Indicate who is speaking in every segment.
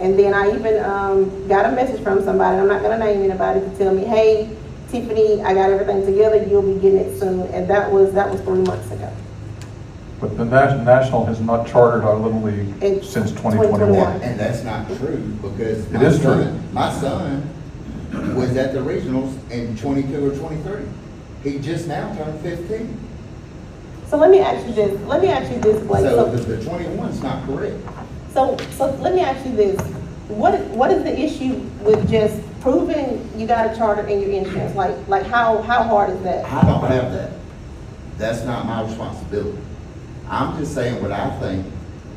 Speaker 1: And then I even, um, got a message from somebody, I'm not gonna name anybody, to tell me, hey, Tiffany, I got everything together, you'll be getting it soon. And that was, that was three months ago.
Speaker 2: But the Nas- National has not chartered our Little League
Speaker 1: It's
Speaker 2: since
Speaker 1: 2021.
Speaker 2: 2021.
Speaker 3: And that's not true, because
Speaker 2: It
Speaker 3: my
Speaker 2: is true.
Speaker 3: son, my son was at the regionals in twenty-two or twenty-three. He just now turned fifteen,
Speaker 1: So let me ask you this, let me ask you this, Blake.
Speaker 3: so the, the twenty-one's not correct.
Speaker 1: So, so let me ask you this, what, what is the issue with just proving you got a charter in your insurance? Like, like how, how hard is that?
Speaker 3: I don't have that. That's not my responsibility. I'm just saying what I think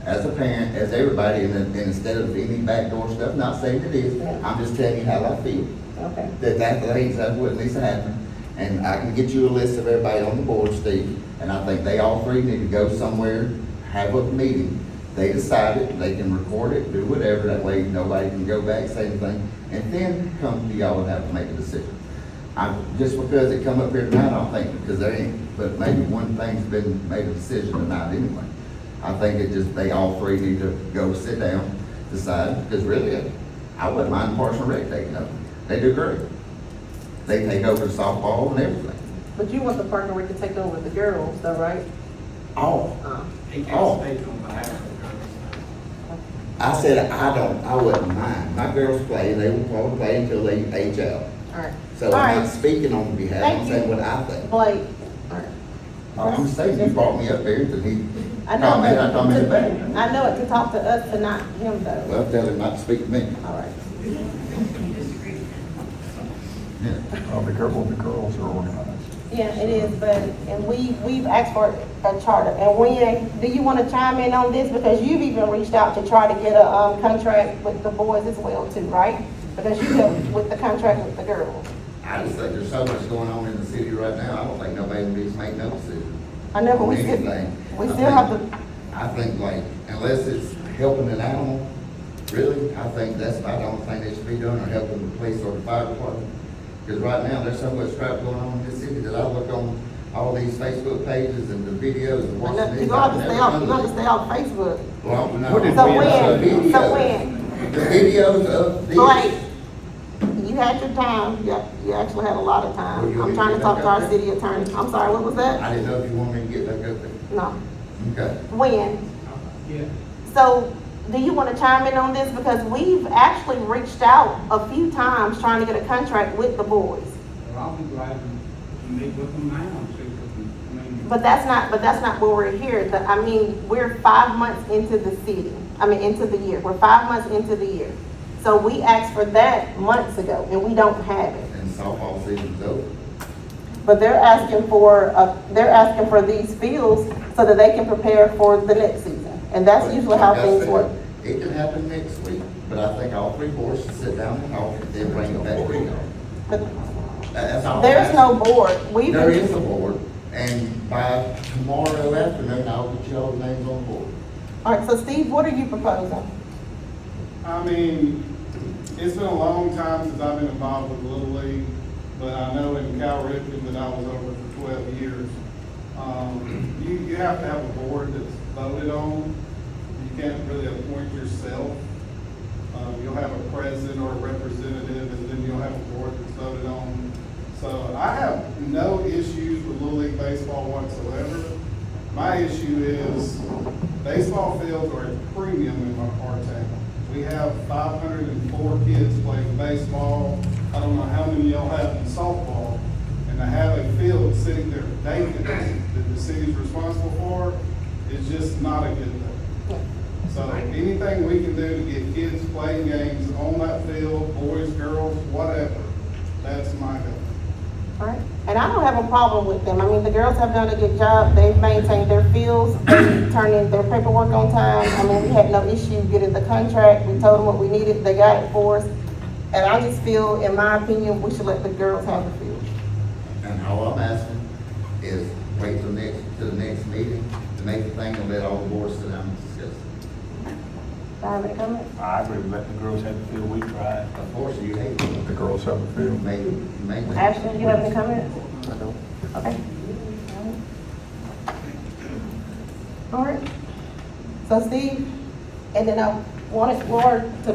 Speaker 3: as a parent, as everybody, and, and instead of any backdoor stuff, not saying it is, I'm just telling you how I feel.
Speaker 1: Okay,
Speaker 3: that that lays up what needs to happen. And I can get you a list of everybody on the board, Steve, and I think they all three need to go somewhere, have a meeting. They decide it, they can record it, do whatever, that way nobody can go back, say anything, and then come to y'all and have to make a decision. I, just because it come up here tonight, I don't think, because there ain't, but maybe one thing's been, made a decision tonight anyway. I think it just, they all three need to go sit down, decide, because really, I wouldn't mind Parks and Rec taking over. They do great. They take over softball and everything.
Speaker 1: but you want the partner rec to take over the girls though, right?
Speaker 3: All.
Speaker 1: Uh,
Speaker 4: He
Speaker 3: Oh.
Speaker 4: can't speak on behalf of the girls.
Speaker 3: I said, I don't, I wouldn't mind. My girls play, they will probably play until they age out.
Speaker 1: All right.
Speaker 3: So I'm not speaking on behalf, I'm
Speaker 1: Thank you.
Speaker 3: saying what I think.
Speaker 1: Blake, all right.
Speaker 3: I'm saying, you brought me up here to need
Speaker 1: I know,
Speaker 3: comment, I commented
Speaker 1: but,
Speaker 3: back.
Speaker 1: I know it to talk to us, to not him though.
Speaker 3: Well, tell him not to speak to me.
Speaker 1: All right.
Speaker 3: Yeah.
Speaker 2: Uh, The girl- the girls are organized.
Speaker 1: Yeah, it is, but, and we, we've asked for a charter, and when, do you wanna chime in on this, because you've even reached out to try to get a, um, contract with the boys as well too, right? Because you helped with the contract with the girls.
Speaker 3: I just think there's so much going on in the city right now, I don't think nobody needs to make no decision.
Speaker 1: I know, but we still,
Speaker 3: Anything.
Speaker 1: we still have to,
Speaker 3: I think like, unless it's helping an animal, really, I think that's about the only thing that should be done, or helping the police or the fire department. Because right now, there's so much crap going on in this city that I look on all these Facebook pages and the videos
Speaker 1: I
Speaker 3: and watching
Speaker 1: know-
Speaker 3: these.
Speaker 1: you gonna have to stay off, you gonna have to stay off Facebook.
Speaker 3: Well, I'm not.
Speaker 2: What did
Speaker 1: So
Speaker 2: we
Speaker 3: The
Speaker 1: when,
Speaker 3: videos-
Speaker 1: so when,
Speaker 3: The videos of these.
Speaker 1: Blake, you had your time, you, you actually had a lot of
Speaker 3: Well,
Speaker 1: time,
Speaker 3: you
Speaker 1: I'm
Speaker 3: need
Speaker 1: trying
Speaker 3: to
Speaker 1: to talk to
Speaker 3: back
Speaker 1: our
Speaker 3: up.
Speaker 1: city attorney, I'm sorry, what was that?
Speaker 3: I didn't know if you wanted me to get back up there.
Speaker 1: No,
Speaker 3: Okay.
Speaker 1: when?
Speaker 4: Yeah.
Speaker 1: So, do you want to chime in on this? Because we've actually reached out a few times trying to get a contract with the boys.
Speaker 4: Well, I'll be glad to meet with them now and see what, we- I mean.
Speaker 1: But that's not, but that's not where we're here. The- I mean, we're five months into the city, I mean, into the year. We're five months into the year. So we asked for that months ago and we don't have it.
Speaker 3: And softball season's over.
Speaker 1: But they're asking for, uh, they're asking for these fields so that they can prepare for the next season. And that's
Speaker 3: But
Speaker 1: usually how
Speaker 3: like I
Speaker 1: things
Speaker 3: said,
Speaker 1: work.
Speaker 3: It can happen next week, but I think all three boards should sit down and talk, and then bring it back to you.
Speaker 1: But
Speaker 3: That- That's all.
Speaker 1: there's no board. We've
Speaker 3: There
Speaker 1: been
Speaker 3: is a board, and by tomorrow afternoon, I'll get y'all's names on board.
Speaker 1: All right, so Steve, what are you proposing?
Speaker 5: I mean, it's been a long time since I've been involved with Little League, but I know in Cal Ripken that I was over for twelve years. Um, you, you have to have a board that's voted on. You can't really appoint yourself. Um, you'll have a president or a representative, and then you'll have a board that's voted on. So I have no issues with Little League Baseball whatsoever. My issue is baseball fields are a premium in our our town. We have five hundred and four kids playing baseball. I don't know how many y'all have in softball. And to have a field sitting there vacant that the city's responsible for is just not a good thing. So anything we can do to get kids playing games on that field, boys, girls, whatever, that's my goal.
Speaker 1: Right. And I don't have a problem with them. I mean, the girls have done a good job. They've maintained their fields, they turned in their paperwork on time. I mean, we had no issue getting the contract. We told them what we needed, they got it for us. And I just feel, in my opinion, we should let the girls have the field.
Speaker 3: And all I'm asking is wait till next, to the next meeting to make the thing and let all the boards sit down and discuss. it.
Speaker 1: Do I have any comments?
Speaker 6: I agree with letting the girls have the field, we tried.
Speaker 3: Of course, you hate it.
Speaker 2: The girls have a
Speaker 3: You
Speaker 2: field.
Speaker 3: may, you may.
Speaker 1: Ashton, you have any comments? Okay. All right. So Steve, and then I wanted Laura to